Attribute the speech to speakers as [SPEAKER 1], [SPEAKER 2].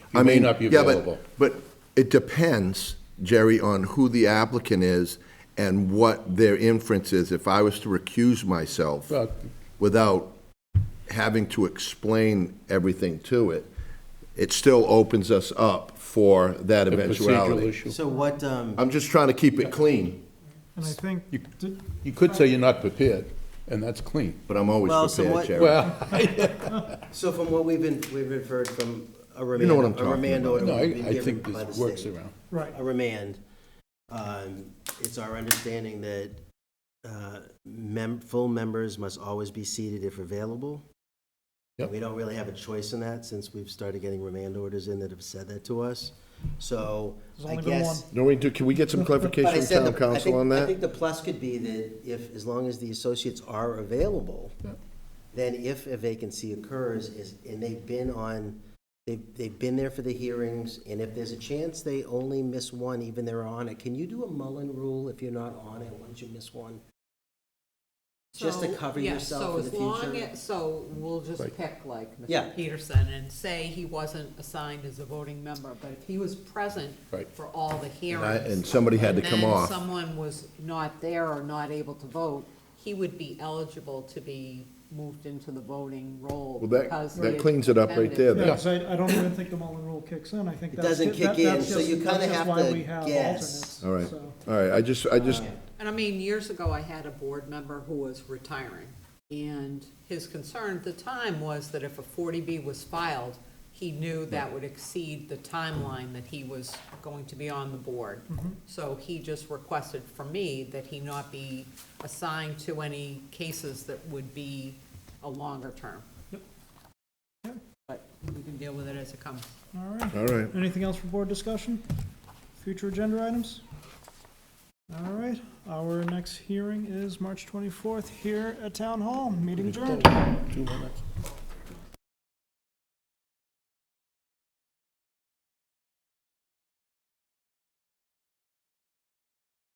[SPEAKER 1] I
[SPEAKER 2] You may
[SPEAKER 1] mean,
[SPEAKER 2] not be
[SPEAKER 1] yeah, but-
[SPEAKER 2] available.
[SPEAKER 1] But it depends, Jerry, on who the applicant is and what their inference is. If I was to recuse myself
[SPEAKER 2] Well-
[SPEAKER 1] without having to explain everything to it, it still opens us up for that
[SPEAKER 2] The procedural
[SPEAKER 1] eventuality.
[SPEAKER 2] issue.
[SPEAKER 3] So what, um,
[SPEAKER 1] I'm just trying to keep it clean,
[SPEAKER 4] And I think,
[SPEAKER 2] You-
[SPEAKER 4] did-
[SPEAKER 2] You could say you're not prepared, and that's clean.
[SPEAKER 1] but I'm always
[SPEAKER 3] Well, so
[SPEAKER 1] prepared,
[SPEAKER 3] what-
[SPEAKER 1] Jerry.
[SPEAKER 2] Well,
[SPEAKER 3] so from what we've been, we've inferred from a
[SPEAKER 1] You know what
[SPEAKER 3] remand,
[SPEAKER 1] I'm
[SPEAKER 3] a remand
[SPEAKER 1] talking
[SPEAKER 3] order
[SPEAKER 2] no, I,
[SPEAKER 3] would be
[SPEAKER 2] I
[SPEAKER 3] given
[SPEAKER 2] think
[SPEAKER 3] by the
[SPEAKER 2] this works
[SPEAKER 3] state.
[SPEAKER 2] around.
[SPEAKER 4] right,
[SPEAKER 3] A remand, um, it's our understanding that, uh, mem, full members must always be seated if available.
[SPEAKER 2] Yep.
[SPEAKER 3] We don't really have a choice in that since we've started getting remand orders in that have said that to us. So
[SPEAKER 4] There's
[SPEAKER 3] I
[SPEAKER 4] only been
[SPEAKER 3] guess.
[SPEAKER 1] No, we do, can we get some
[SPEAKER 3] But I
[SPEAKER 1] clarification from
[SPEAKER 3] said
[SPEAKER 1] town
[SPEAKER 3] the- I
[SPEAKER 1] council
[SPEAKER 3] think-
[SPEAKER 1] on
[SPEAKER 3] I
[SPEAKER 1] that?
[SPEAKER 3] think the plus could be that if, as long as the associates are available, then if a vacancy occurs, is, and they've been on, they've, they've been there for the hearings, and if there's a chance they only miss one, even they're on it, can you do a Mullen rule if you're not on it, once you miss one? Just to
[SPEAKER 5] So,
[SPEAKER 3] cover
[SPEAKER 5] yeah,
[SPEAKER 3] yourself for the
[SPEAKER 5] So as long
[SPEAKER 3] future?
[SPEAKER 5] as, so we'll just pick like
[SPEAKER 3] Yeah.
[SPEAKER 5] Mr. Peterson and say he wasn't assigned as a voting member, but if he was present
[SPEAKER 2] Right.
[SPEAKER 5] for all the
[SPEAKER 1] And I-
[SPEAKER 5] hearings.
[SPEAKER 1] And somebody had to come
[SPEAKER 5] And then
[SPEAKER 1] off.
[SPEAKER 5] someone was not there or not able to vote, he would be eligible to be moved into the voting role
[SPEAKER 1] Well, that-
[SPEAKER 5] because.
[SPEAKER 1] that
[SPEAKER 5] he
[SPEAKER 1] cleans it up right
[SPEAKER 5] attended.
[SPEAKER 1] there, then.
[SPEAKER 4] yeah, 'cause I, I don't even think the Mullen Rule kicks in, I think
[SPEAKER 3] It
[SPEAKER 4] that's.
[SPEAKER 3] doesn't
[SPEAKER 4] that-
[SPEAKER 3] kick
[SPEAKER 4] that's
[SPEAKER 3] in, so
[SPEAKER 4] just-
[SPEAKER 3] you kinda
[SPEAKER 4] that's just
[SPEAKER 3] have
[SPEAKER 4] why
[SPEAKER 3] to
[SPEAKER 4] we have
[SPEAKER 3] guess.
[SPEAKER 4] alternates,
[SPEAKER 1] All right,
[SPEAKER 4] so.
[SPEAKER 1] all right, I just, I just,
[SPEAKER 5] And I mean, years ago, I had a board member who was retiring, and his concern at the time was that if a 40B was filed, he knew that would exceed the timeline that he was going to be on the board. So he just requested from me that he not be assigned to any cases that would be a longer term.
[SPEAKER 4] Yep.
[SPEAKER 5] But we can deal with it as it comes.
[SPEAKER 4] All right,
[SPEAKER 1] all right.
[SPEAKER 4] anything else for board discussion? Future agenda items? All right, our next hearing is March twenty-fourth here at Town Hall, meeting adjourned.
[SPEAKER 2] Two minutes.